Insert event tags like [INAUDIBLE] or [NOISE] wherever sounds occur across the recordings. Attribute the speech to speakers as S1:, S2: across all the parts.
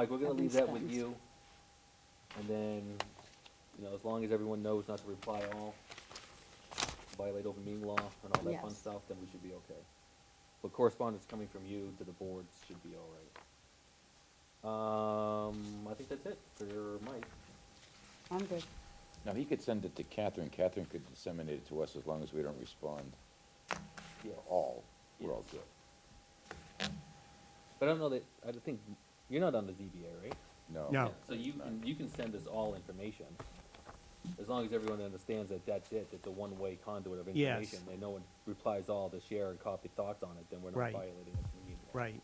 S1: Mike, we're gonna
S2: I've
S1: leave
S2: been
S1: that with
S2: spent.
S1: you, and then, you know, as long as everyone knows not to reply all, violate open meeting law and all that fun
S2: Yes.
S1: stuff, then we should be okay. But correspondence coming from you to the boards should be all right. Um, I think that's it for Mike.
S2: I'm good.
S3: Now, he could send it to Catherine, Catherine could disseminate it to us as long as we don't respond
S1: Yeah.
S3: all, we're all good.
S1: But I don't know that, I don't think, you're not on the ZBA, right?
S3: No?
S4: No.
S1: So you can, you can send us all information, as long as everyone understands that that's it, it's a one-way conduit of
S4: Yes.
S1: information. And no one replies all to share and copy thoughts on it, then we're not
S4: Right.
S1: violating it.
S4: Right.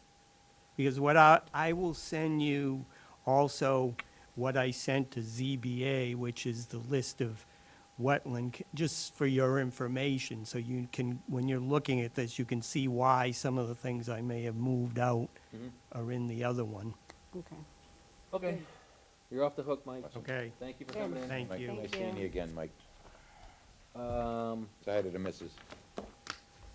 S4: Because what I, I will send you also what I sent to ZBA, which is the list of wetland, c- just for your information, so you can, when you're looking at this, you can see why some of the things I may have moved out
S1: Mhm.
S4: are in the other one.
S2: Okay.
S1: Okay, you're off the hook, Mike.
S4: Okay.
S1: Thank you for
S2: Good.
S1: coming in.
S4: Thank
S3: Mike,
S4: you.
S3: nice
S2: Thank
S3: seeing
S2: you.
S3: you again, Mike.
S1: Um,
S3: Sorry to the missus.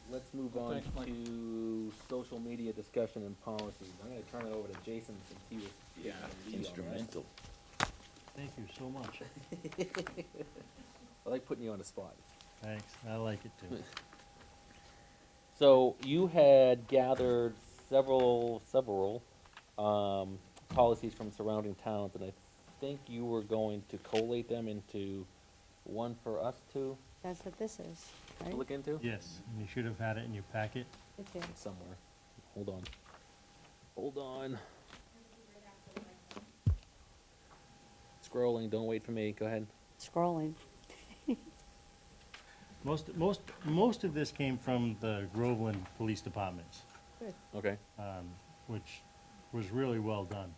S1: let's move on to social media discussion and policies. I'm gonna turn it over to Jason since he was. Yeah, uh,
S3: Instrumental.
S5: Thank you so much.
S1: I like putting you on the spot.
S5: Thanks, I like it [LAUGHS] too.
S1: So you had gathered several, several, um, policies from surrounding towns, and I think you were going to collate them into one for us to
S2: That's what this is, right?
S1: look into?
S5: Yes, and you should have had it in your packet.
S2: It's here.
S1: It's Somewhere. Hold on. Hold on. Scrolling, don't wait for me, go ahead.
S2: Scrolling.
S5: Most, most, most of this came from the Groveland Police Departments,
S2: Good.
S1: Okay.
S5: um, which was really well done.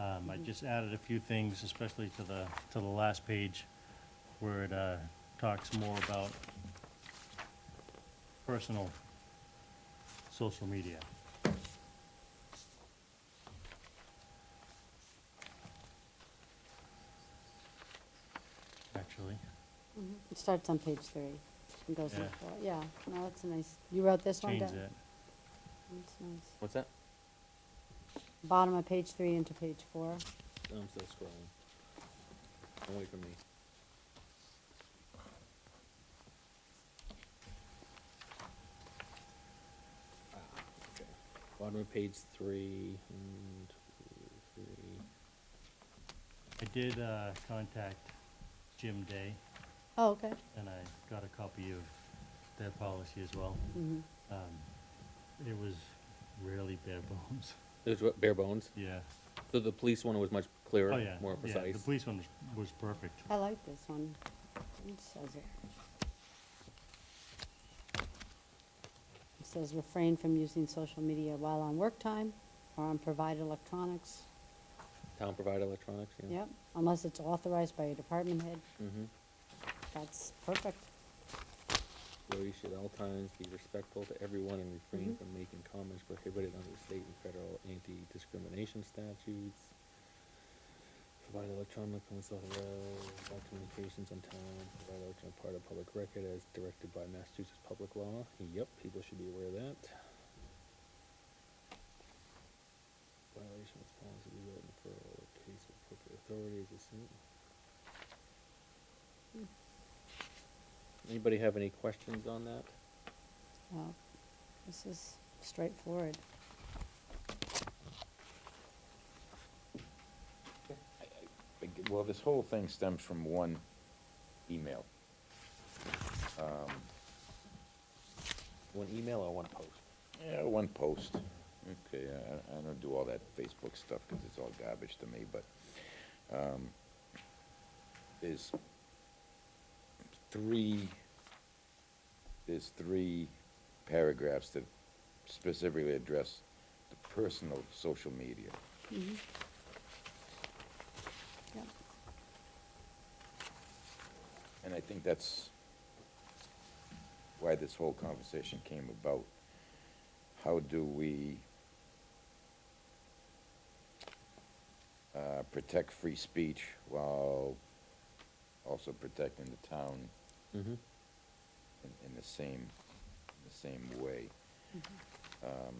S5: Um, I just added a few things, especially to the, to the last page, where it, uh, talks more about personal social media. Actually,
S2: It starts on page three and goes on,
S5: Yeah.
S2: for- yeah, no, that's a nice, you wrote this one
S5: change
S2: down?
S5: that.
S2: That's nice.
S1: What's that?
S2: Bottom of page three into page four.
S1: I'm still scrolling. Don't wait for me. Ah, okay. Bottom of page three, one, two, three.
S5: I did uh, contact Jim Day,
S2: Oh, okay.
S5: and I got a copy of their policy as well.
S2: Mm-hmm.
S5: Um, It was really bare [LAUGHS] bones.
S1: There's what- bare bones.
S5: Yeah.
S1: So the police one was much clearer,
S5: Oh, yeah.
S1: more
S5: Yeah,
S1: precise.
S5: The police one was, was perfect.
S2: I like this one. It says it. It says refrain from using social media while on work time or on provided electronics.
S1: Town provided electronics. Yeah.
S2: Yep, unless it's authorized by your department head.
S1: Mm-hmm.
S2: That's perfect.
S1: Where we should at all times be respectful to everyone and refrain from making comments prohibited under state and federal anti-discrimination statutes. Provide electronic and social, uh, communications on town, provide electronic part of public record as directed by Massachusetts public law. Yep, people should be aware of that. Violation of policy, we will refer all case of appropriate authorities, as soon. Anybody have any questions on that?
S2: Well, this is straightforward.
S3: Ag- Well, this whole thing stems from one email. Um,
S1: One email or one post?
S3: Yeah, one post. Okay, I, I don't do all that Facebook stuff because it's all garbage to me, but, um, there's three, there's three paragraphs that specifically address the personal social media.
S2: Mhm. Yep.
S3: And I think that's why this whole conversation came about. How do we uh, protect free speech while also protecting the town
S1: Mm-hmm.
S3: in, in the same, the same way? Um,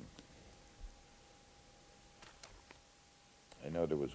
S3: I know there was